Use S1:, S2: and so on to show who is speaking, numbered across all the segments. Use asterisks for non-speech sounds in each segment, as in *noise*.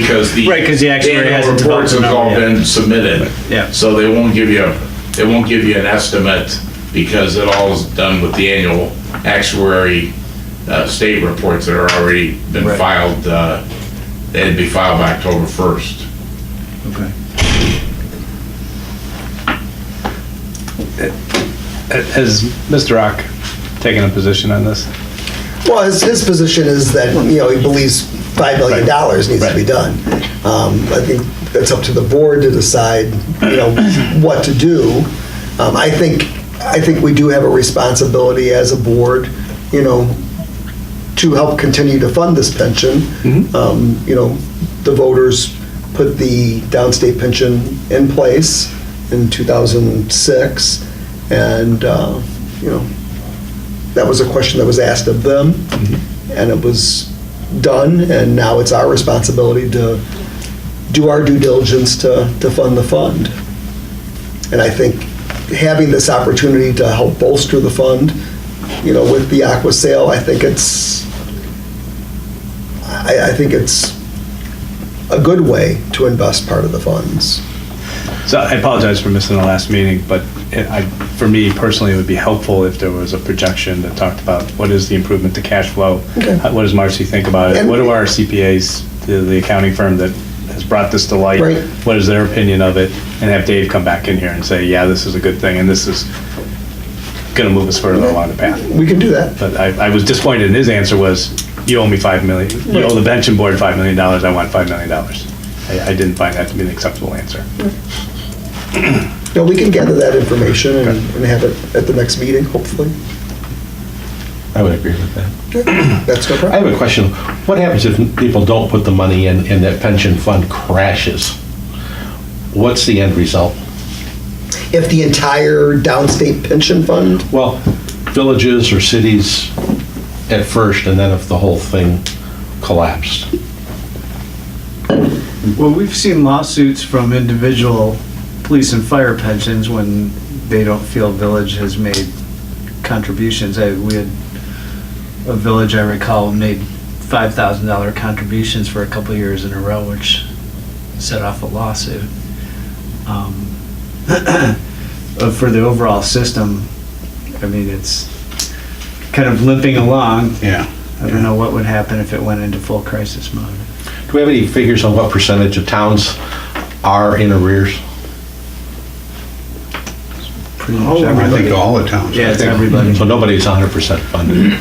S1: because the.
S2: Right, 'cause the actuary
S1: annual
S2: hasn't
S1: Reports have
S2: developed a
S1: all
S2: number yet.
S1: been submitted.
S2: Yeah.
S1: So they won't give you, they won't give you an estimate because it all is done with the annual actuary uh, state reports that are already been
S2: Right.
S1: filed. uh, They'd be filed by October 1st.
S2: Okay. Has Mr. Rock taken a position on this?
S3: Well, his, his position is that, you know, he believes $5 million dollars needs to be
S2: Right.
S3: done. Um, I think that's up to the board to decide, you know, what to do. Um, I think, I think we do have a responsibility as a board, you know, to help continue to fund this pension. Um, You know, the voters put the downstate pension in place in 2006, and, uh, you know, that was a question that was asked of them, and it was done, and now it's our responsibility to do our due diligence to, to fund the fund. And I think having this opportunity to help bolster the fund, you know, with the Aqua sale, I think it's, I, I think it's a good way to invest part of the funds.
S2: So I apologize for missing the last meeting, but it- I, for me personally, it would be helpful if there was a projection that talked about what is the improvement to cash flow?
S3: Okay.
S2: How- What does Marcy think about it?
S3: And-
S2: What do our CPAs, the- the accounting firm that has brought this to light?
S3: Right.
S2: What is their opinion of it? And have Dave come back in here and say, yeah, this is a good thing and this is gonna move us further along the path.
S3: We can do that.
S2: But I, I was disappointed in his answer was, you owe me five million, you owe the pension board five million dollars, I want five million dollars. I, I didn't find that to be an acceptable answer.
S3: No, we can gather that information and and have it at the next meeting, hopefully.
S4: I would agree with that.
S3: That's no
S4: I
S3: problem.
S4: have a question. What happens if people don't put the money in and that pension fund crashes? What's the end result?
S3: If the entire downstate pension fund,
S4: Well, villages or cities at first, and then if the whole thing collapsed.
S5: Well, we've seen lawsuits from individual police and fire pensions when they don't feel village has made contributions. I, we had a village I recall made five thousand dollar contributions for a couple of years in a row, which set off a lawsuit. Um, *coughs* but for the overall system, I mean, it's kind of limping along.
S2: Yeah.
S5: I don't know what would happen if it went into full crisis mode.
S4: Do we have any figures on what percentage of towns are in arrears?
S5: Pretty much
S6: Oh, I
S5: everybody-
S6: think all the towns.
S5: Yeah, it's everybody.
S4: So nobody's 100% funded.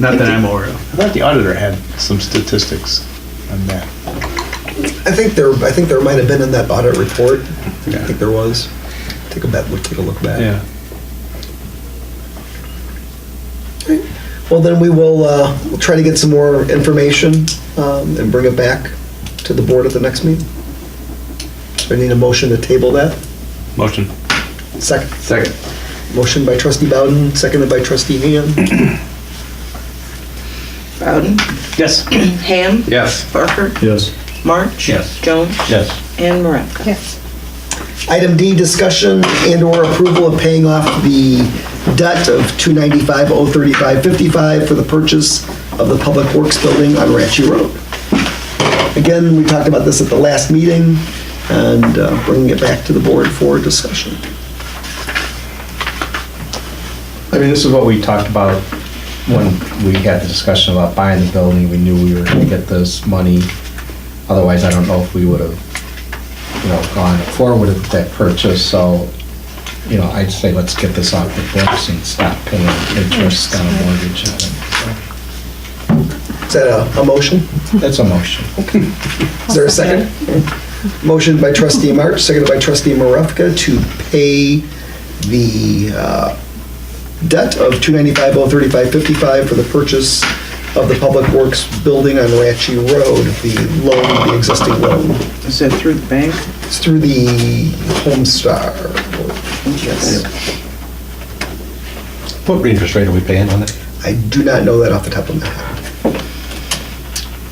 S5: Not that I'm aware of.
S2: I thought the auditor had some statistics on that.
S3: I think there, I think there might have been in that audit report. I think there was. Take a bet, take a look back.
S2: Yeah.
S3: Well, then we will uh, we'll try to get some more information um, and bring it back to the board at the next meeting. I need a motion to table that.
S2: Motion.
S3: Second,
S4: Second.
S3: motion by trustee Bowden, seconded by trustee Ham.
S7: Bowden,
S2: Yes.
S7: Ham,
S4: Yes.
S7: Barker. Yes. March.
S4: Yes.
S7: Jones
S4: Yes.
S7: and Maravka.
S8: Yes.
S3: Item D, discussion and/or approval of paying off the debt of 295-035-55 for the purchase of the Public Works Building on Ranchi Road. Again, we talked about this at the last meeting and uh, bringing it back to the board for discussion.
S9: I mean, this is what we talked about when we had the discussion about buying the building. We knew we were gonna get this money. Otherwise, I don't know if we would have, you know, gone forward with that purchase, so, you know, I'd say let's get this off the books and stop paying interest on a mortgage. on it.
S3: Is that a- a motion?
S9: That's a motion.
S3: Is there a second? Motion by trustee March, seconded by trustee Marevka to pay the uh, debt of 295-035-55 for the purchase of the Public Works Building on Ratchy Road, the loan, the existing loan.
S5: Is that through the bank?
S3: It's through the Homestar. Yes.
S4: What interest rate are we paying on it?
S3: I do not know that off the top of my head.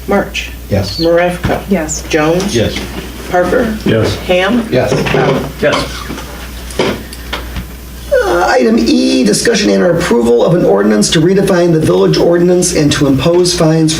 S7: March,
S4: Yes.
S7: Maravka.
S8: Yes.
S7: Jones.
S4: Yes.
S7: Parker.
S4: Yes.
S7: Ham.
S4: Yes.
S3: Uh, Item E, discussion and approval of an ordinance to redefine the village ordinance and to impose fines